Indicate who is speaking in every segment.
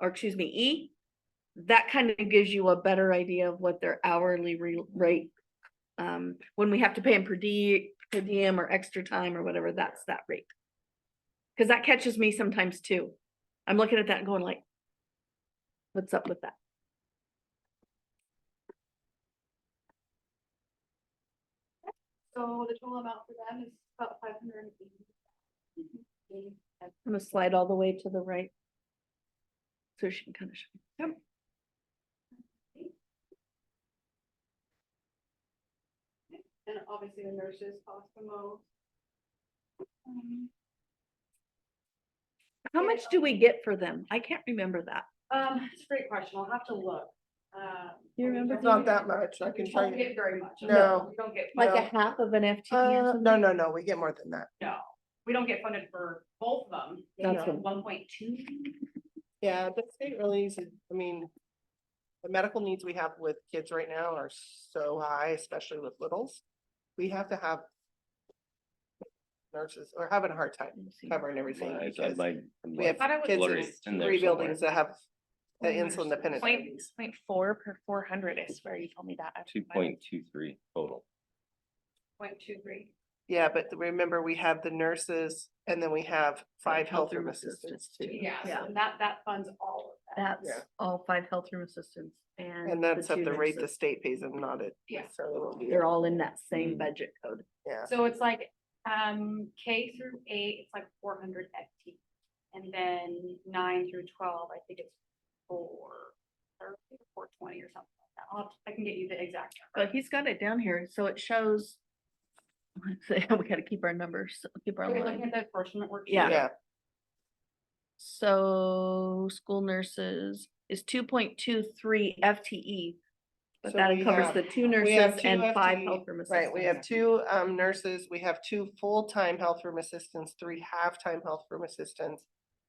Speaker 1: or excuse me, E, that kind of gives you a better idea of what their hourly re- rate. Um, when we have to pay them per D, per diem or extra time or whatever, that's that rate. Cause that catches me sometimes too. I'm looking at that and going like, what's up with that?
Speaker 2: So the total amount for them is about five hundred and eighty.
Speaker 1: I'm gonna slide all the way to the right. So she can kind of. Yep.
Speaker 2: And obviously the nurses cost the most. Um,
Speaker 1: How much do we get for them? I can't remember that.
Speaker 2: Um, it's a great question. I'll have to look. Um,
Speaker 1: You
Speaker 2: we
Speaker 1: remember
Speaker 2: don't
Speaker 3: It's not
Speaker 2: get-
Speaker 3: that much, I can
Speaker 2: We
Speaker 3: tell
Speaker 2: don't
Speaker 3: you.
Speaker 2: get very much.
Speaker 3: No.
Speaker 2: We don't get,
Speaker 1: Like
Speaker 3: Like
Speaker 1: a
Speaker 3: a
Speaker 1: half of an
Speaker 3: Uh,
Speaker 1: FTE.
Speaker 3: no, no, no, we get more than that.
Speaker 2: no, we don't get funded for both of them.
Speaker 1: That's what-
Speaker 2: One point two.
Speaker 3: Yeah, the state really is, I mean, the medical needs we have with kids right now are so high, especially with littles. We have to have nurses, we're having a hard time covering everything
Speaker 4: Lies, I
Speaker 3: because
Speaker 4: might- I'm
Speaker 3: we have
Speaker 4: like-
Speaker 2: Thought it was
Speaker 3: kids
Speaker 4: blurry. It's
Speaker 3: in
Speaker 4: in there
Speaker 3: three
Speaker 4: somewhere.
Speaker 3: buildings that have uh, insulin dependent.
Speaker 5: Point, point four per four hundred is where you told me that. I
Speaker 4: Two
Speaker 5: don't know.
Speaker 4: point two three total.
Speaker 2: Point two three.
Speaker 3: Yeah, but remember, we have the nurses and then we have five
Speaker 1: health
Speaker 3: health room
Speaker 1: room assistants,
Speaker 3: assistants too.
Speaker 2: Yeah,
Speaker 1: Yeah.
Speaker 2: so that, that funds all of that.
Speaker 1: That's
Speaker 3: Yeah.
Speaker 1: all five health room assistants and.
Speaker 3: And that's
Speaker 1: two
Speaker 3: at the rate the
Speaker 1: nurses.
Speaker 3: state pays them, not at.
Speaker 2: Yeah.
Speaker 3: necessarily what we-
Speaker 1: They're all in that same
Speaker 3: Mm-hmm.
Speaker 4: Mm.
Speaker 1: budget code.
Speaker 3: Yeah.
Speaker 2: So it's like, um, K through eight, it's like four hundred FT. And then nine through twelve, I think it's four thirty, four twenty or something like that. I'll, have to- I can get you the exact number.
Speaker 1: But he's got it down here, so it shows. Let's see, we gotta keep our numbers, keep our
Speaker 2: Are we looking
Speaker 1: line.
Speaker 2: at the enforcement work?
Speaker 1: Yeah.
Speaker 3: Yeah,
Speaker 1: So school nurses is two point two three FTE. But
Speaker 3: So
Speaker 1: that
Speaker 3: we
Speaker 1: covers
Speaker 3: have-
Speaker 1: the two
Speaker 3: we have
Speaker 1: nurses
Speaker 3: two
Speaker 1: and five
Speaker 3: FTE
Speaker 1: health room assistants.
Speaker 3: Right, we have two um nurses, we have two full-time health room assistants, three half-time health room assistants.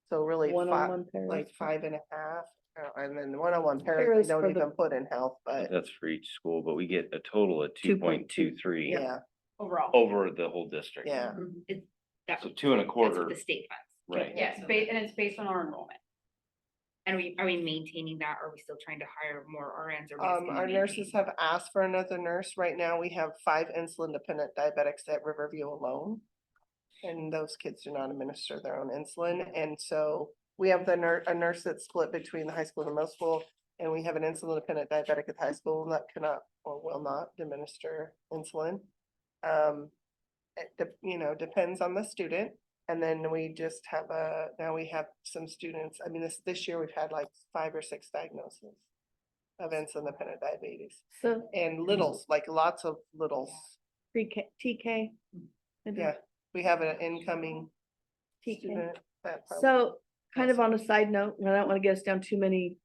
Speaker 3: So really five,
Speaker 1: One-on-one pairs.
Speaker 3: like five and a half, uh, and then one-on-one
Speaker 1: Paras
Speaker 3: parents,
Speaker 1: for
Speaker 3: don't
Speaker 1: the-
Speaker 3: even put in health, but
Speaker 4: That's for each school, but we get a total of two point two three
Speaker 3: yeah,
Speaker 2: Overall.
Speaker 4: over the whole district.
Speaker 3: yeah.
Speaker 1: Mhm.
Speaker 2: It's- that
Speaker 4: So
Speaker 2: would-
Speaker 4: two and a
Speaker 6: That's what
Speaker 4: quarter,
Speaker 6: the state funds.
Speaker 4: right?
Speaker 2: Yes, ba- and it's based on our enrollment.
Speaker 6: And we, are we maintaining that? Are we still trying to hire more RNs? Are we just
Speaker 3: Um,
Speaker 6: gonna
Speaker 3: our nurses
Speaker 6: maintain-
Speaker 3: have asked for another nurse. Right now, we have five insulin-dependent diabetics at Riverview alone. And those kids do not administer their own insulin, and so we have the nurse, a nurse that's split between the high school and the middle school. And we have an insulin-dependent diabetic at the high school that cannot or will not administer insulin. Um, it, de- you know, depends on the student. And then we just have a, now we have some students, I mean, this, this year we've had like five or six diagnoses of insulin dependent diabetes
Speaker 1: So
Speaker 3: and littles, like lots of littles.
Speaker 1: pre K, TK. maybe
Speaker 3: Yeah, we have an incoming
Speaker 1: TK.
Speaker 3: student that. probably-
Speaker 1: So kind of on a side note, and I don't want to get us down too many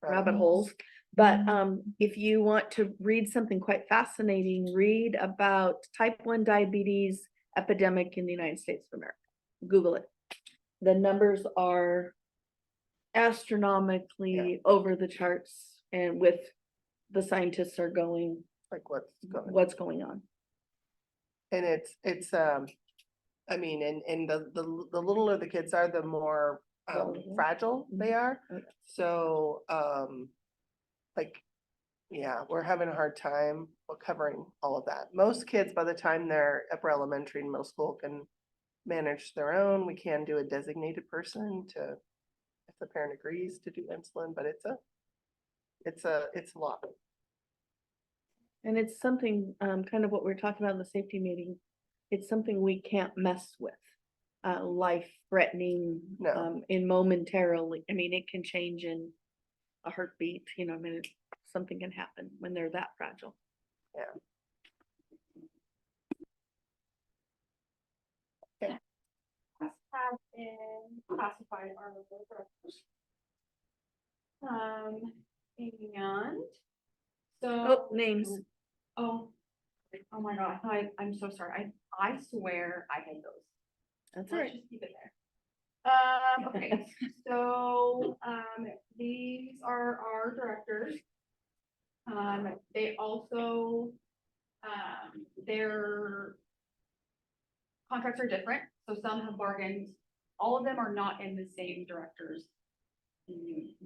Speaker 1: rabbit holes.
Speaker 3: Mm-hmm.
Speaker 1: But um, if you want to read something quite fascinating, read about type one diabetes epidemic in the United States of America. Google it. The numbers are astronomically over the charts and with the scientists are going,
Speaker 3: Like what's going,
Speaker 1: what's going on?
Speaker 3: and it's, it's, um, I mean, and, and the, the, l- the littler the kids are, the more um
Speaker 1: Vulnerable.
Speaker 3: fragile they
Speaker 1: Mhm.
Speaker 3: are.
Speaker 1: Okay.
Speaker 3: So, um, like, yeah, we're having a hard time with covering all of that. Most kids, by the time they're upper elementary and middle school can manage their own. We can do a designated person to, if the parent agrees to do insulin, but it's a, it's a, it's a lot.
Speaker 1: And it's something, um, kind of what we we're talking about in the safety meeting. It's something we can't mess with. Uh, life threatening,
Speaker 3: No.
Speaker 1: um, in momentarily, I mean, it can change in a heartbeat, you know, I mean, it- something can happen when they're that fragile.
Speaker 2: class have been classified are reversed. Um, and
Speaker 1: Oh,
Speaker 2: so.
Speaker 1: names.
Speaker 2: Oh, oh my God, I, I'm so sorry. I, I swear I had those.
Speaker 1: That's
Speaker 2: Let's just Keep it there. Um, okay, so, um, these are our directors. Um, they also, um, their contracts are different, so some have bargains. All of them are not in the same directors. union.